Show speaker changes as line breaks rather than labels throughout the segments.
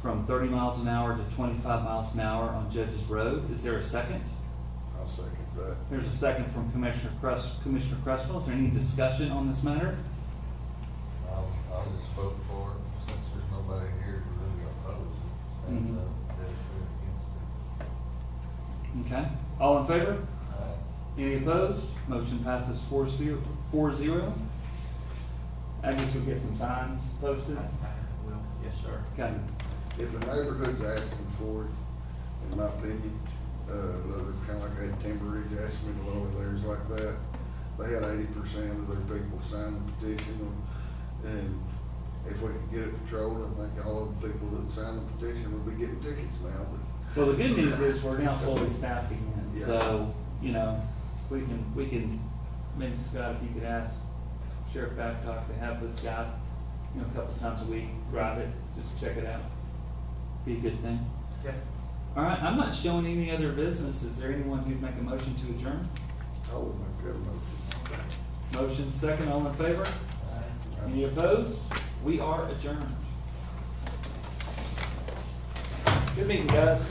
from thirty miles an hour to twenty-five miles an hour on Judges Road. Is there a second?
I'll second that.
There's a second from Commissioner Crest, Commissioner Crestwell. Is there any discussion on this matter?
I'll, I'll just vote for it, since there's nobody here to really oppose it, and, uh, that's against
Okay. All in favor?
it. Aye.
Any opposed? Motion passes four zero, four zero. I guess we'll get some signs posted.
Well, yes, sir.
Okay.
If a neighborhood's asking for it, in my opinion, uh, look, it's kinda like that Timber Ridge asked me to lower theirs like that. They had eighty percent of their people sign the petition, and if we could get it patrolled, I think all of the people that signed the petition would be getting tickets now, but
Well, the good news is we're now fully staffed again, so, you know, we can, we can, maybe Scott, if you could ask Sheriff Babcock to have this guy, you know, a couple times a week, drive it, just check it out. Be a good thing.
Okay.
All right, I'm not showing any other business. Is there anyone who'd make a motion to adjourn?
I would make that motion.
Motion second, all in favor? Any opposed? We are adjourned. Good meeting, guys.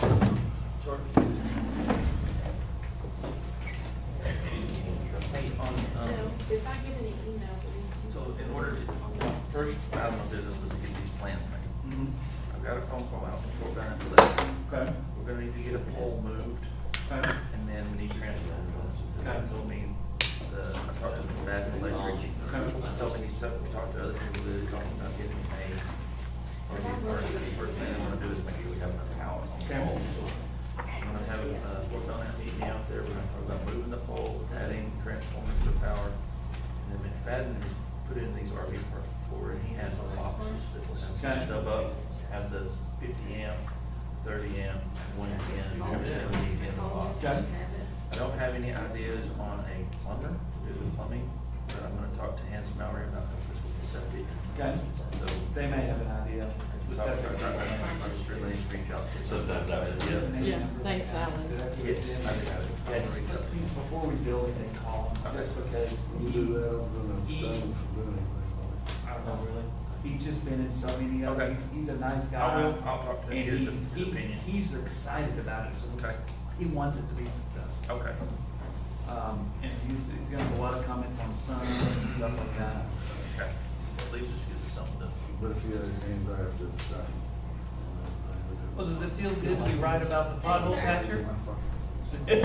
Hey, on, um,
If I get any emails, I mean,
so in order to, first item of business was to get these plans made.
Mhm.
I've got a phone call out before we're gonna, do that.
Okay,
we're gonna need to get a pole moved,
okay.
and then we need transfer. Kind of told me, the, um, I talked to the bad electric, I told me, he said, we talked to other people that are talking about getting a, or the, or the first thing I wanna do is make sure we have enough power on the pole. I'm gonna have, uh, work on that meeting out there, we're gonna talk about moving the pole, adding transformers to the power. And then McFadden has put in these RV parks before, and he has some boxes that will have
Okay.
some stuff up, have the fifty amp, thirty amp, one ten, everything we need in the box.
Okay.
I don't have any ideas on a plumber, to do the plumbing, but I'm gonna talk to Hans Mallory about the fiscal facility.
Okay.
So.
They may have an idea.
I'll- I'll- I'll- I'll just relay and reach out to-
Sometimes I would,
Yeah.
Yeah, thanks, Alan.
Yes, I got it.
Yeah, just please, before we build anything, call him, just because
We'll
he,
do that, I'm gonna abstain from doing
I
anything.
don't know, really, he's just been in so many,
Okay.
other he's, he's a nice guy.
I will, I'll talk to him,
And
get
he's,
his his
he's,
opinion.
he's excited about it, so
Okay.
he wants it to be successful.
Okay.
Um, and he's, he's gonna have a lot of comments on sun and stuff like that.
Okay. At least it's good to something to.
But if you had any anxiety, it's done.
Well, does it feel good to be right about the pothole
Thanks,
patcher?
My fucking-